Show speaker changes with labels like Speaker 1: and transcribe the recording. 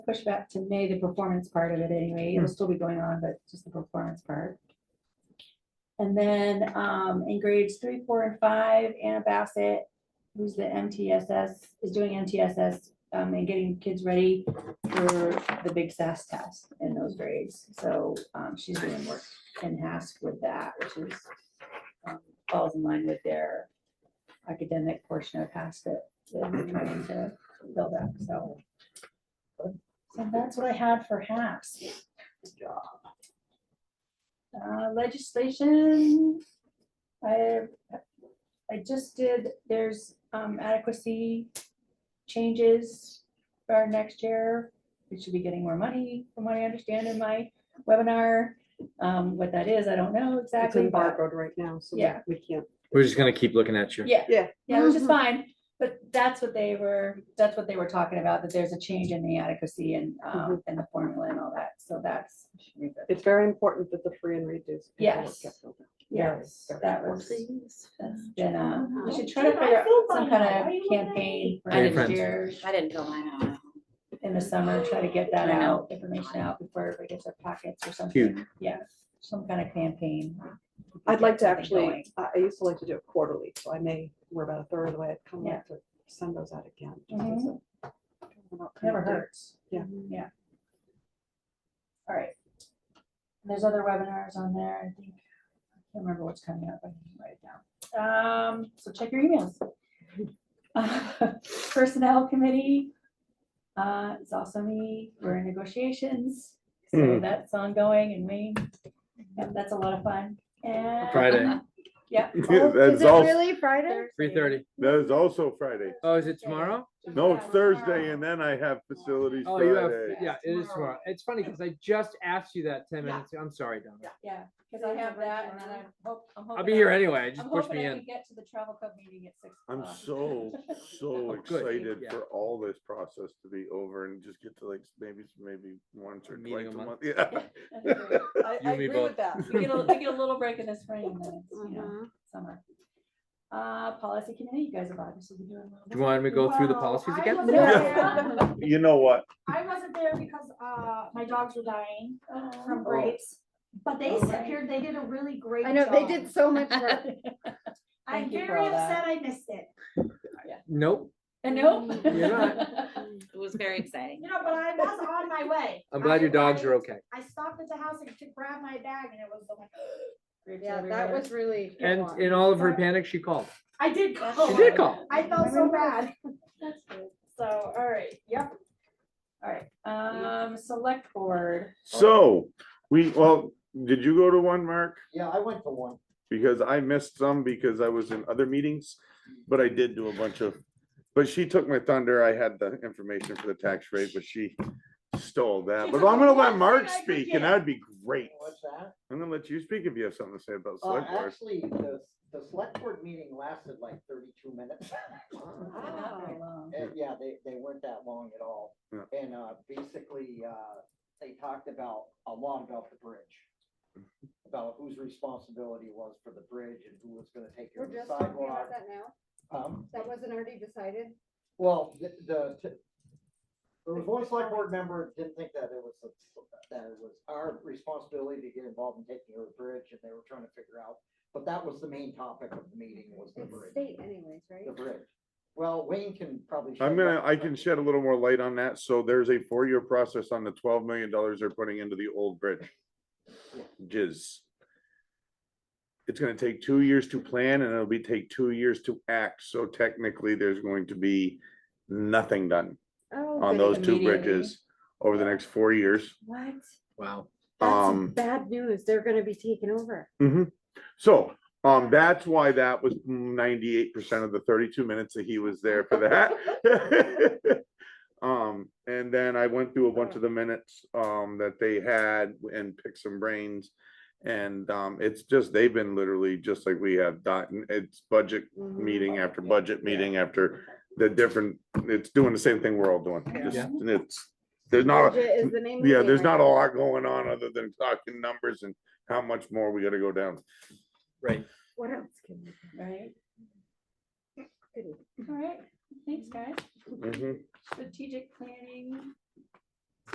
Speaker 1: push back to May, the performance part of it anyway, it'll still be going on, but just the performance part. And then, um, in grades three, four, and five, Anna Bassett, who's the MTSS, is doing MTSS, um, and getting kids ready for the big SAS test in those grades, so, um, she's doing work in HASC with that, which is um, falls in line with their academic portion of HASC that that we're trying to build up, so. So that's what I had for HASC. Uh, legislation, I, I just did, there's um, adequacy changes for our next year. We should be getting more money, from what I understand in my webinar. Um, what that is, I don't know
Speaker 2: It's
Speaker 1: exactly. but-
Speaker 2: embargoed right now, so we-
Speaker 1: Yeah.
Speaker 2: we can't.
Speaker 3: We're just gonna keep looking at you.
Speaker 1: Yeah.
Speaker 2: Yeah.
Speaker 1: Yeah, which is fine, but that's what they were, that's what they were talking about, that there's a change in the adequacy and, um, and the formula and all that, so that's.
Speaker 2: It's very important that the free and reduced. people
Speaker 1: Yes.
Speaker 2: get filled out.
Speaker 1: Yes, that was,
Speaker 4: Please.
Speaker 1: that's been, uh, we should try
Speaker 4: Wow.
Speaker 1: to figure out
Speaker 4: Feel
Speaker 1: some
Speaker 4: fine
Speaker 1: kind
Speaker 4: now. Why
Speaker 1: of
Speaker 4: you wanna
Speaker 1: campaign for
Speaker 3: Are your
Speaker 1: next
Speaker 3: friends?
Speaker 1: year,
Speaker 4: I didn't fill mine out.
Speaker 1: in the summer, try to get that
Speaker 4: I know.
Speaker 1: out, information out before everybody gets their packets or something. Yeah, some kind of campaign.
Speaker 2: I'd like to
Speaker 1: Get something
Speaker 2: actually,
Speaker 1: going.
Speaker 2: I I used to like to do it quarterly, so I may, we're about a third of the way, I'd kind of
Speaker 1: Yeah. Mm-hmm.
Speaker 2: like to send those out again. just as a- about kind
Speaker 1: Never
Speaker 2: of date.
Speaker 1: hurts.
Speaker 2: Yeah.
Speaker 1: Yeah. All right. There's other webinars on there, I think. I can't remember what's coming up, I can write it down. Um, so check your emails. Uh, Personnel committee, uh, it's also me, we're in negotiations, so
Speaker 3: Hmm.
Speaker 1: that's ongoing and we, yep, that's a lot of fun. And.
Speaker 3: Friday,
Speaker 1: Yeah.
Speaker 5: That's also,
Speaker 1: Friday?
Speaker 3: three thirty.
Speaker 5: that is also Friday.
Speaker 3: Oh, is it tomorrow?
Speaker 5: No, it's Thursday and then I have facilities
Speaker 3: Oh, you have,
Speaker 5: Friday.
Speaker 3: yeah, it is tomorrow. It's funny because I just asked you that ten
Speaker 2: Yeah.
Speaker 3: minutes. ago. I'm sorry, Donna.
Speaker 1: Yeah, because I have that and then I hope, I'm hoping.
Speaker 3: I'll be
Speaker 1: I-
Speaker 3: here anyway.
Speaker 1: I'm
Speaker 3: Just push
Speaker 1: hoping
Speaker 3: me
Speaker 1: I
Speaker 3: in.
Speaker 1: can get to the travel club meeting at six.
Speaker 5: I'm
Speaker 1: o'clock.
Speaker 5: so, so
Speaker 3: Oh, good.
Speaker 5: excited
Speaker 3: Yeah.
Speaker 5: for all this process to be over and just get to like maybe, maybe once or
Speaker 3: Meeting
Speaker 5: twice
Speaker 3: a
Speaker 5: a
Speaker 3: month.
Speaker 5: month. Yeah.
Speaker 1: That's great.
Speaker 2: I,
Speaker 3: You
Speaker 2: I
Speaker 3: and me
Speaker 2: agree with
Speaker 3: both.
Speaker 2: that.
Speaker 1: We get a, we get a little break in the spring and then, it's, you
Speaker 5: Mm-hmm.
Speaker 2: Uh-huh.
Speaker 1: know, summer. Uh, policy committee, you guys have obviously been doing. a little
Speaker 3: Do
Speaker 1: bit.
Speaker 3: you want me to go through the policies
Speaker 6: I
Speaker 3: again?
Speaker 6: wasn't there.
Speaker 5: You know what?
Speaker 6: I wasn't there because, uh, my dogs were dying from
Speaker 1: Oh.
Speaker 6: grapes, but they
Speaker 1: Oh, right.
Speaker 6: appeared, they did a really great
Speaker 7: I
Speaker 6: job.
Speaker 7: know, they did so much work.
Speaker 6: I'm
Speaker 1: Thank you for
Speaker 6: very
Speaker 1: all that.
Speaker 6: upset I missed it,
Speaker 3: Nope.
Speaker 1: And uh, no.
Speaker 3: You're not.
Speaker 4: It was very exciting.
Speaker 6: you know, but I was on my way.
Speaker 3: I'm glad your dogs are
Speaker 6: I-
Speaker 3: okay.
Speaker 6: I stopped at the house and to grab my bag and it was like,
Speaker 1: Grapes
Speaker 7: Yeah, that
Speaker 1: everywhere.
Speaker 7: was really. good
Speaker 3: And
Speaker 7: one.
Speaker 3: in all of her panic, she called.
Speaker 6: I did
Speaker 3: She
Speaker 1: Oh,
Speaker 6: call.
Speaker 3: did call.
Speaker 6: I felt so bad,
Speaker 1: That's good.
Speaker 6: so, all right, yep.
Speaker 1: All right, um, select board.
Speaker 5: So, we, well, did you go to one, Mark?
Speaker 8: Yeah, I went to one.
Speaker 5: Because I missed some because I was in other meetings, but I did do a bunch of, but she took my thunder. I had the information for the tax rate, but she stole that.
Speaker 6: She
Speaker 5: But
Speaker 6: took
Speaker 5: I'm gonna
Speaker 6: one
Speaker 5: let
Speaker 6: thing
Speaker 5: Mark
Speaker 6: I could
Speaker 5: speak
Speaker 6: get.
Speaker 5: and that'd be great.
Speaker 8: What's that?
Speaker 5: I'm gonna let you speak if you have something to say about
Speaker 8: Uh,
Speaker 5: select board.
Speaker 8: actually, the, the select board meeting lasted like thirty-two minutes.
Speaker 1: They're not
Speaker 7: Oh.
Speaker 1: very long.
Speaker 8: And yeah, they, they weren't that long at all.
Speaker 5: Yeah.
Speaker 8: And, uh, basically, uh, they talked about, a lot about the bridge. About whose responsibility it was for the bridge and who was gonna take care
Speaker 7: We're
Speaker 8: of the
Speaker 7: just talking about
Speaker 8: sidewalk.
Speaker 7: that now.
Speaker 8: Um,
Speaker 7: That wasn't already decided.
Speaker 8: Well, the, the, t- there was one select board member didn't think that it was, a- that it was our responsibility to get involved in taking over the bridge, and they were trying to figure out, but that was the main topic of the meeting was the
Speaker 7: It's
Speaker 8: bridge,
Speaker 7: state anyways, right?
Speaker 8: the bridge. Well, Wayne can probably. shed
Speaker 5: I'm gonna,
Speaker 8: light
Speaker 5: I
Speaker 8: on
Speaker 5: can
Speaker 8: that.
Speaker 5: shed a little more light on that. So there's a four-year process on the twelve million dollars they're putting into the old bridge. Jizz. It's gonna take two years to plan and it'll be take two years to act. So technically, there's going to be nothing done
Speaker 7: Oh,
Speaker 5: on those two
Speaker 1: Immediately.
Speaker 5: bridges over the next four years.
Speaker 7: What?
Speaker 3: Wow.
Speaker 5: Um.
Speaker 7: That's bad news. They're gonna be taken over.
Speaker 5: Mm-hmm. So, um, that's why that was ninety-eight percent of the thirty-two minutes that he was there for that. Um, and then I went through a bunch of the minutes, um, that they had and picked some brains. And, um, it's just, they've been literally just like we have gotten, it's budget
Speaker 7: Mm-hmm.
Speaker 5: meeting after budget meeting after the different, it's doing the same thing we're all doing. Just-
Speaker 3: Yeah.
Speaker 5: And it's, there's not, a-
Speaker 7: Budget Is the name. of the
Speaker 5: yeah,
Speaker 7: game
Speaker 5: there's
Speaker 7: right
Speaker 5: not a
Speaker 7: now.
Speaker 5: lot going on other than talking numbers and how much more we gotta go down.
Speaker 3: Right.
Speaker 7: What else can we?
Speaker 1: Right,
Speaker 7: do?
Speaker 1: all right, thanks, guys.
Speaker 5: Mhm.
Speaker 1: Strategic planning,